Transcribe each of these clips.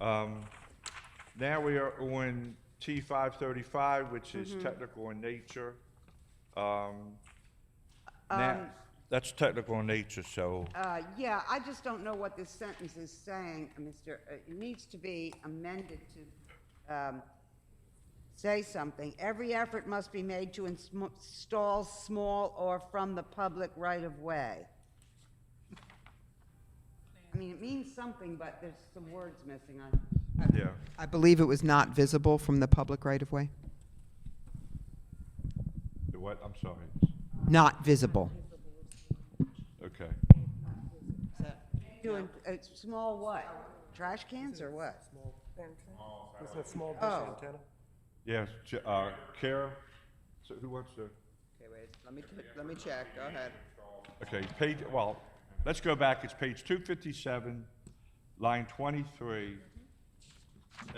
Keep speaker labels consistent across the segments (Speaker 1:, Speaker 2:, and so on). Speaker 1: Um, Now we are on T five thirty-five, which is technical in nature. Um, Now, that's technical in nature, so,
Speaker 2: Uh, Yeah, I just don't know what this sentence is saying, uh, Mr., uh, it needs to be amended to um, say something. Every effort must be made to ins- install small or from the public right-of-way. I mean, it means something, but there's some words missing on
Speaker 1: yeah.
Speaker 3: I believe it was not visible from the public right-of-way.
Speaker 1: The What, I'm sorry.
Speaker 3: Not visible.
Speaker 1: Okay.
Speaker 2: To, in- uh, small what? Trash cans or what?
Speaker 4: Small It's that small dish
Speaker 2: Oh.
Speaker 4: antenna?
Speaker 1: Yes, J- uh, Kara, so who wants to?
Speaker 5: Okay, wait, let me, t- let me check, go ahead.
Speaker 1: Okay, page, well, let's go back, it's page two fifty-seven, line twenty-three.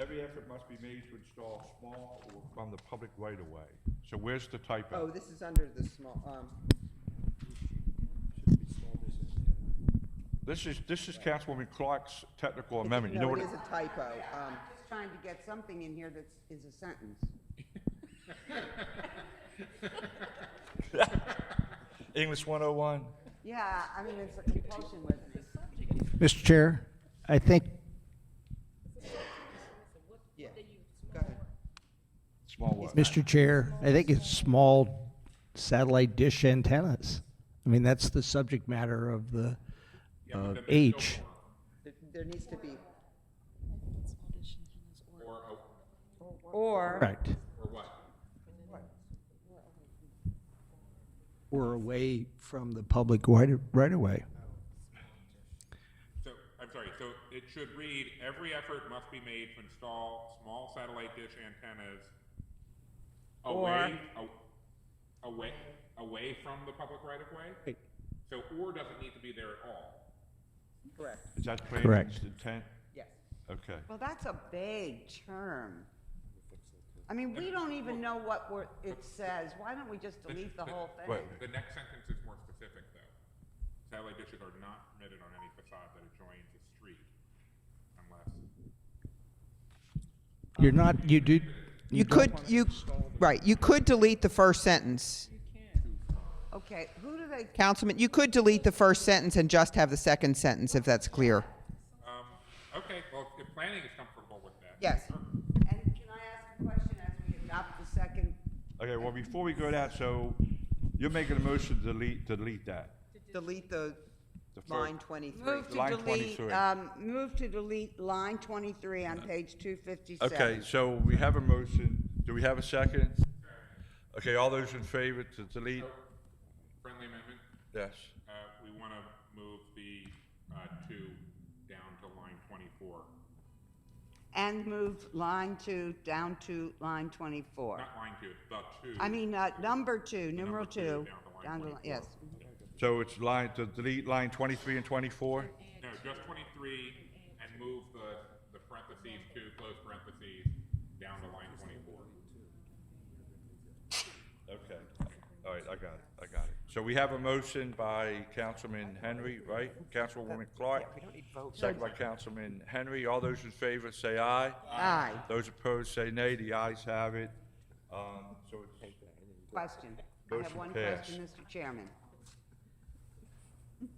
Speaker 1: Every effort must be made to install small or from the public right of way. So where's the
Speaker 5: Oh,
Speaker 1: typo?
Speaker 5: this is under the small, um,
Speaker 1: This is, this is Councilwoman Clark's technical amendment, you know
Speaker 5: no,
Speaker 1: what?
Speaker 5: it is a typo, um,
Speaker 2: Just trying to get something in here that is a sentence.
Speaker 1: English one oh one?
Speaker 2: Yeah, I mean, it's a compulsion with it.
Speaker 6: Mr. Chair, I think,
Speaker 5: yeah, go ahead.
Speaker 1: Small what?
Speaker 6: Mr. Chair, I think it's small satellite dish antennas. I mean, that's the subject matter of the, of H.
Speaker 5: There, there needs to be,
Speaker 6: Correct. Or away from the public right, right away.
Speaker 7: So, I'm sorry, so it should read, every effort must be made to install small satellite dish antennas away, a- away, away from the public right of way? So or doesn't need to be there at all.
Speaker 5: correct,
Speaker 1: Is that Craven's
Speaker 6: Correct.
Speaker 1: intent?
Speaker 5: yes.
Speaker 1: Okay.
Speaker 2: Well, that's a vague term. I mean, we don't even know what we're, it says. Why don't we just delete the whole thing?
Speaker 1: Wait.
Speaker 7: The next sentence is more specific, though. Satellite dishes are not permitted on any facade that adjoins a street unless,
Speaker 6: You're not, you do,
Speaker 3: You
Speaker 6: you
Speaker 3: could, you, right, you could delete the first sentence.
Speaker 2: Okay, who do they,
Speaker 3: Councilman, you could delete the first sentence and just have the second sentence if that's clear.
Speaker 7: um, okay, well, if planning is comfortable with that.
Speaker 5: Yes.
Speaker 7: sure.
Speaker 2: and can I ask a question as we adopt the second?
Speaker 1: Okay, well, before we go that, so you're making a motion to delete, delete that.
Speaker 5: Delete the
Speaker 1: The first-
Speaker 5: line twenty-three.
Speaker 2: Move to
Speaker 1: Line
Speaker 2: delete,
Speaker 1: 23.
Speaker 2: um, move to delete line 23 on page 257.
Speaker 1: Okay, so we have a motion. Do we have a second? Okay, all those in favor to delete?
Speaker 7: Friendly amendment?
Speaker 1: Yes.
Speaker 7: Uh, we want to move the, uh, two down to line twenty-four,
Speaker 2: And move line 2 down to line 24.
Speaker 7: not line two, the two.
Speaker 2: I mean, uh, number 2, numeral 2,
Speaker 7: two, down to line
Speaker 2: down to, li-
Speaker 7: 24.
Speaker 2: yes.
Speaker 1: So it's line, to delete line 23 and 24?
Speaker 7: No, just twenty-three and move the, the parentheses, two close parentheses, down to line twenty-four.
Speaker 1: Okay. All right, I got it, I got it. So we have a motion by Councilman Henry, right? Councilwoman Clark? Second by Councilman Henry. All those in favor say aye.
Speaker 2: Aye,
Speaker 1: Those opposed say nay. The ayes have it. Um, So it's
Speaker 2: question. I have
Speaker 1: Motion
Speaker 2: one
Speaker 1: passed.
Speaker 2: question, Mr. Chairman.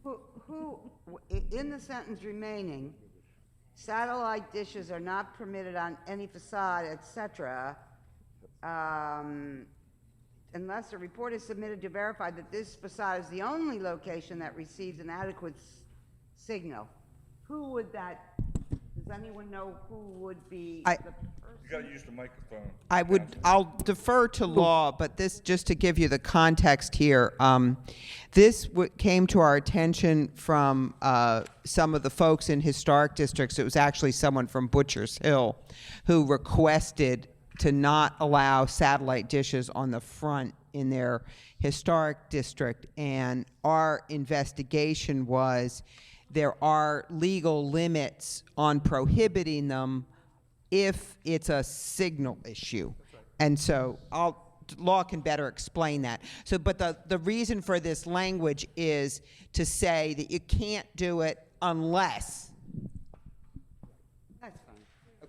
Speaker 2: Who- Who, i- in the sentence remaining, satellite dishes are not permitted on any facade, et cetera, um, unless a report is submitted to verify that this facade is the only location that receives an adequate s- signal. Who would that, does anyone know who would be
Speaker 3: I-
Speaker 2: the person?
Speaker 1: you got to use the microphone.
Speaker 3: I would, I'll defer to law, but this, just to give you the context here, um, this w- came to our attention from uh, some of the folks in historic districts. It was actually someone from Butcher's Hill who requested to not allow satellite dishes on the front in their historic district. And our investigation was there are legal limits on prohibiting them if it's a signal issue. And so I'll, law can better explain that. So, but the, the reason for this language is to say that you can't do it unless
Speaker 2: I That's fine.